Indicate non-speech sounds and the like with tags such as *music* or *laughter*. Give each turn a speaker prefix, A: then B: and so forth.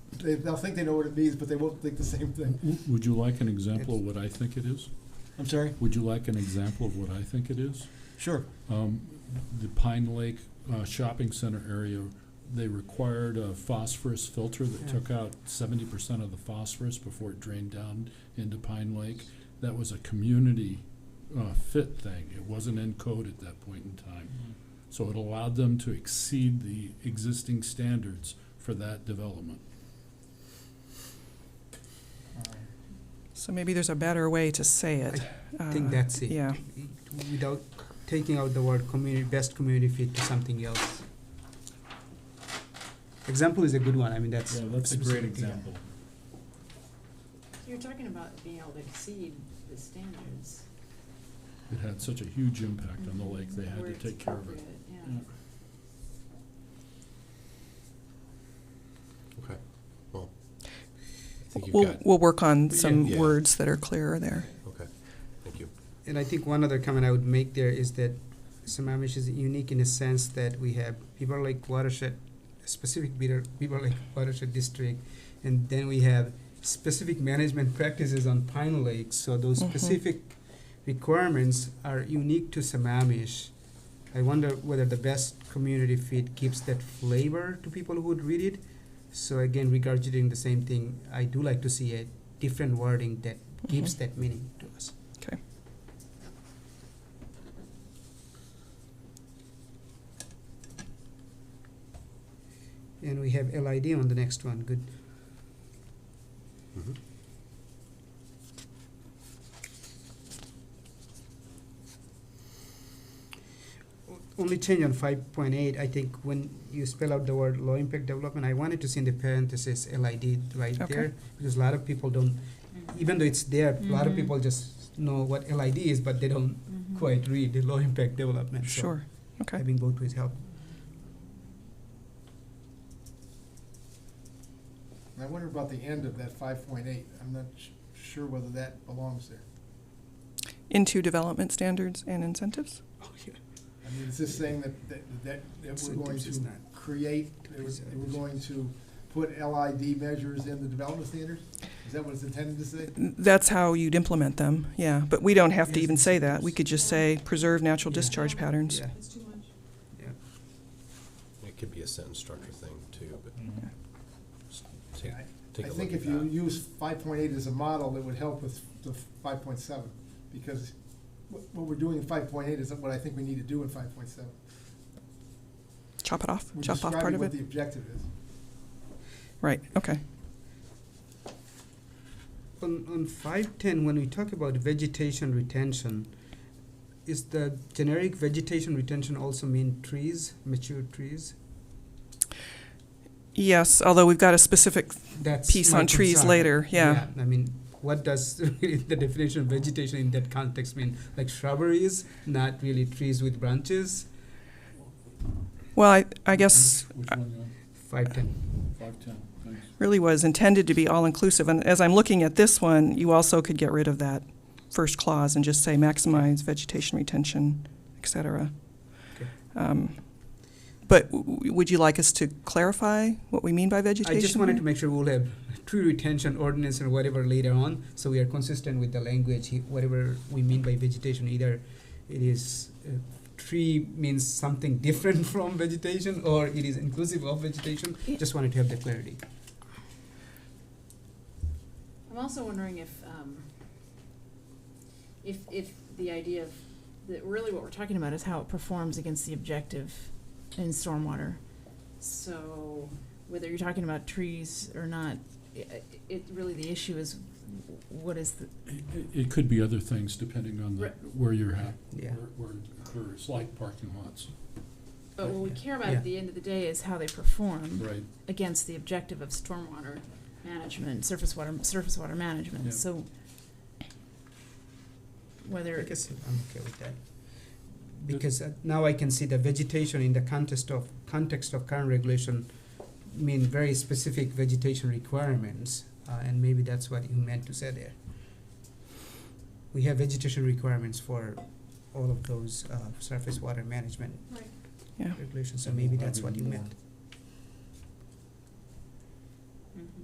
A: they, they'll think they know what it means, but they won't think the same thing.
B: W- Would you like an example of what I think it is?
A: I'm sorry?
B: Would you like an example of what I think it is?
A: Sure.
B: Um, the Pine Lake, uh, shopping center area, they required a phosphorus filter that
A: Yeah.
B: took out seventy percent of the phosphorus before it drained down into Pine Lake. That was a community, uh, fit thing. It wasn't in code at that point in time. So it allowed them to exceed the existing standards for that development.
A: Um,
C: So maybe there's a better way to say it.
D: I think
C: Uh,
D: that's it.
C: Yeah,
D: Without taking out the word community, best community fit to something else. Example is a good one, I mean, that's. specific.
E: You're talking about being able to exceed the standards.
B: It had such a huge impact on the lake, they had
E: where
B: to
E: it's
B: take care of it.
E: appropriate,
B: Yeah.
E: Yeah.
F: Okay, well, I think you've
C: we'll,
F: got,
C: we'll work on some
F: Yeah.
C: words that are clearer there.
F: okay, thank you.
D: And I think one other comment I would make there is that Sammamish is unique in a sense that we have Beaver Lake watershed, specific Beaver, Beaver Lake watershed district, and then we have specific management practices on Pine Lake. So those
C: Mhm.
D: specific requirements are unique to Sammamish. I wonder whether the best community fit gives that flavor to people who would read it. So again, regurgitating the same thing, I do like to see a different wording that gives that meaning to us. And we have LID on the next one, good.
F: Mhm.
D: O- Only change on five point eight, I think when you spell out the word low impact development, I wanted to see in the parentheses LID right
C: Okay.
D: there. Because a lot of people don't,
E: Mhm.
D: even though it's there, a lot of
C: Mm-hmm.
E: Mhm.
D: people just know what LID is, but they don't
E: Mhm.
D: quite read the low impact development. So
C: Sure, okay.
D: Having both ways help.
A: And I wonder about the end of that five point eight. I'm not sh- sure whether that belongs there.
C: Into development standards and incentives?
D: Oh, yeah.
A: I mean, it's just saying that, that, that, that we're going
D: Incentives is
A: to
D: not-
A: create, that we're, that we're going to put LID measures in the development standards? Is that what it's intended to say?
C: That's how you'd implement them, yeah, but we don't have to
D: Yes,
C: even say that. We
D: incentives.
C: could just say preserve natural
D: Yeah.
C: discharge patterns.
D: Yeah,
E: It's too much.
F: It could be a sentence structure thing too, but just take,
A: I-
F: take
A: I
F: a look at that.
A: think if you use five point eight as a model, it would help with the five point seven, because what, what we're doing in five point eight isn't what I think we need to do in five point seven.
C: Chop it off,
A: We're
C: chop off part
A: describing
C: of
A: what the
C: it.
A: objective is.
C: Right, okay.
D: On, on five ten, when we talk about vegetation retention, is the generic vegetation retention also mean trees, mature trees?
C: Yes, although we've got a specific,
D: That's
C: Piece
D: my
C: on trees
D: concern.
C: later, yeah.
D: I mean, what does *laughs* really the definition of vegetation in that context mean? Like shrubberies, not really trees with branches?
C: well, I, I guess
B: Which one, you on?
D: Five ten.
B: five, ten, thanks.
C: really was intended to be all-inclusive. And as I'm looking at this one, you also could get rid of that first clause and just say maximize vegetation retention, et cetera.
D: Okay.
C: Um, But w- w- would you like us to clarify what we mean by vegetation?
D: I just wanted to make sure we'll have tree retention ordinance or whatever later on, so we are consistent with the language, he- whatever we mean by vegetation, either it is, uh, tree means something *laughs* different from vegetation, or it is inclusive of vegetation,
C: Yeah.
D: just wanted to have that clarity.
E: I'm also wondering if, um, if, if the idea of, that really what we're talking about is how it performs against the objective in stormwater. So whether you're talking about trees or not, it, it, really the issue is what is the,
B: It- it- It could be other things depending on the, where you're at,
D: Yeah.
B: where- where it occurs, like parking lots,
E: but what Oh, we care about
D: Yeah.
E: at the end of the day is how they perform
B: right?
E: against the objective of stormwater management, surface water, surface water
B: Yeah.
E: management, so whether
D: I guess I'm okay with that. Because uh, now I can see the vegetation in the context of, context of current regulation mean very specific vegetation requirements, uh, and maybe that's what you meant to say there. We have vegetation requirements for all of those, uh, surface water management
E: Right.
C: Yeah.
D: regulations, so maybe that's what you meant.
E: Mhm.